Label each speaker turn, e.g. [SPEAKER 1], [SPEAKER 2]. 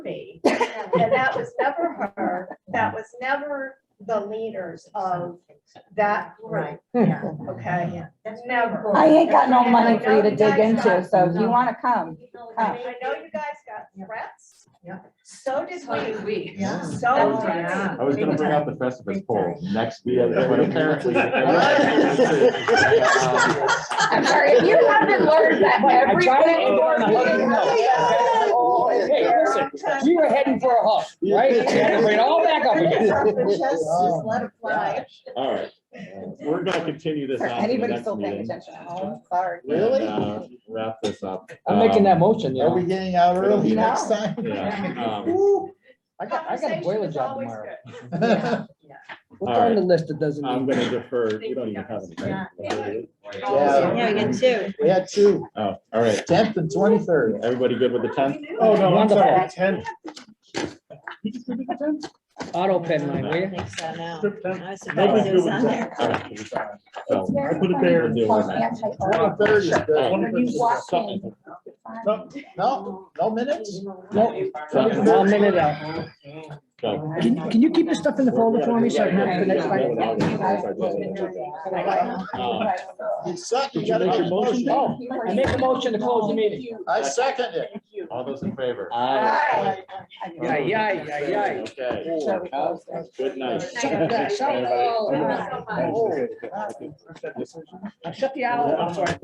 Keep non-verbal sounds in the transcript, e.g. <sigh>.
[SPEAKER 1] And that was never her, that was never the leaders of that group,
[SPEAKER 2] Um, Yeah,
[SPEAKER 1] okay?
[SPEAKER 2] that's
[SPEAKER 1] Never.
[SPEAKER 2] never.
[SPEAKER 3] Hmm. I ain't got no
[SPEAKER 1] And I
[SPEAKER 3] money for you to
[SPEAKER 1] know
[SPEAKER 3] dig
[SPEAKER 1] guys
[SPEAKER 3] into,
[SPEAKER 1] got-
[SPEAKER 3] so if you wanna come,
[SPEAKER 1] I mean, I know you guys got threats.
[SPEAKER 2] Yeah.
[SPEAKER 1] So did
[SPEAKER 4] So did
[SPEAKER 1] we.
[SPEAKER 4] we.
[SPEAKER 2] Yeah.
[SPEAKER 1] So
[SPEAKER 2] Oh, yeah.
[SPEAKER 1] did
[SPEAKER 5] I was gonna bring out the Festivus poll next week, but
[SPEAKER 6] <laughs>
[SPEAKER 5] apparently.
[SPEAKER 3] I'm sorry, if you haven't learned that every
[SPEAKER 6] tried to
[SPEAKER 3] planning board
[SPEAKER 6] ignore it.
[SPEAKER 3] meeting.
[SPEAKER 6] Oh, hey, listen, you were heading for a huff, right? You had to bring it all back up again.
[SPEAKER 1] we. <laughs> Just just let it
[SPEAKER 6] <laughs>
[SPEAKER 1] fly.
[SPEAKER 5] All right, Uh, we're gonna continue this on to the
[SPEAKER 3] Anybody's
[SPEAKER 5] next
[SPEAKER 3] still paying
[SPEAKER 5] meeting.
[SPEAKER 3] attention at home, sorry.
[SPEAKER 5] and, uh, Wrap this up.
[SPEAKER 6] I'm making that motion, you
[SPEAKER 7] Are we
[SPEAKER 6] know.
[SPEAKER 7] getting out
[SPEAKER 5] It'll be
[SPEAKER 7] early next time?
[SPEAKER 5] Um, yeah, um,
[SPEAKER 6] I got, I got a
[SPEAKER 1] Conversation
[SPEAKER 6] boiler
[SPEAKER 1] is
[SPEAKER 6] job
[SPEAKER 1] always
[SPEAKER 6] tomorrow.
[SPEAKER 1] good.
[SPEAKER 6] What's on the list that doesn't?
[SPEAKER 5] I'm
[SPEAKER 6] need-
[SPEAKER 5] gonna defer, we don't even have anything.
[SPEAKER 7] Yeah.
[SPEAKER 2] Yeah, we get two.
[SPEAKER 7] We had two,
[SPEAKER 5] Oh, all right,
[SPEAKER 7] tenth and twenty-third.
[SPEAKER 5] everybody good with the tenth?
[SPEAKER 6] Oh, no, I'm sorry, Wonderful.
[SPEAKER 5] tenth.
[SPEAKER 6] Auto pen mine, will you?
[SPEAKER 2] Think so now.
[SPEAKER 5] Nobody's
[SPEAKER 2] I was surprised it
[SPEAKER 5] good
[SPEAKER 2] was
[SPEAKER 5] with
[SPEAKER 2] on there.
[SPEAKER 5] the tenth.
[SPEAKER 3] It's
[SPEAKER 5] So,
[SPEAKER 3] very
[SPEAKER 5] I put it
[SPEAKER 3] funny
[SPEAKER 5] there.
[SPEAKER 3] to
[SPEAKER 5] Deal
[SPEAKER 3] call
[SPEAKER 5] with it.
[SPEAKER 3] anti-art
[SPEAKER 7] Twenty-third is good.
[SPEAKER 3] When you walk in.
[SPEAKER 7] No, no, no minutes?
[SPEAKER 6] Nope.
[SPEAKER 5] So-
[SPEAKER 6] I'll minute out.
[SPEAKER 5] so-
[SPEAKER 6] Can, can you keep this stuff in the folder for me so I can have it for next time?
[SPEAKER 5] Um,
[SPEAKER 7] You suck, you
[SPEAKER 5] Did you
[SPEAKER 7] gotta
[SPEAKER 5] make
[SPEAKER 7] make a
[SPEAKER 5] your motion?
[SPEAKER 6] Uh, oh,
[SPEAKER 7] motion.
[SPEAKER 6] I make a motion to close
[SPEAKER 3] "Oh,
[SPEAKER 6] the meeting.
[SPEAKER 7] I second it.
[SPEAKER 5] All those in favor?
[SPEAKER 3] Aye.
[SPEAKER 6] Yeah, yeah, yeah, yeah.
[SPEAKER 5] Okay,
[SPEAKER 1] Good
[SPEAKER 5] good night.
[SPEAKER 1] night.
[SPEAKER 6] Shut the-
[SPEAKER 5] Everybody.
[SPEAKER 6] shut the- I shut the owl off, Oh, I'm sorry.